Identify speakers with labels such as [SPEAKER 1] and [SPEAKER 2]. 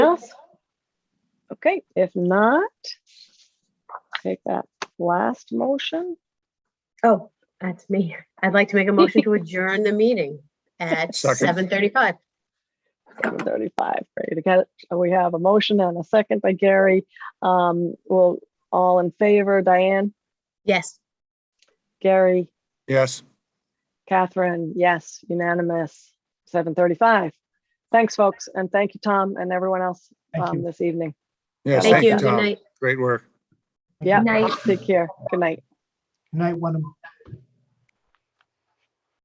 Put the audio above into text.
[SPEAKER 1] Okay, if not, take that last motion.
[SPEAKER 2] Oh, that's me. I'd like to make a motion to adjourn the meeting at
[SPEAKER 3] Second.
[SPEAKER 2] seven thirty-five.
[SPEAKER 1] Seven thirty-five, ready to get it. So We have a motion and a second by Gary. Um, will, all in favor, Diane,
[SPEAKER 2] Yes,
[SPEAKER 1] Gary,
[SPEAKER 3] Yes.
[SPEAKER 1] Catherine, yes, unanimous, seven thirty-five. Thanks, folks, and thank you, Tom, and everyone else,
[SPEAKER 4] Thank
[SPEAKER 1] um,
[SPEAKER 4] you.
[SPEAKER 1] this evening.
[SPEAKER 3] Yes,
[SPEAKER 2] thank you. Good
[SPEAKER 3] Tom.
[SPEAKER 2] night.
[SPEAKER 3] Great work.
[SPEAKER 1] Yeah,
[SPEAKER 2] Night.
[SPEAKER 1] take care. Good night.
[SPEAKER 4] Good night, Wenham.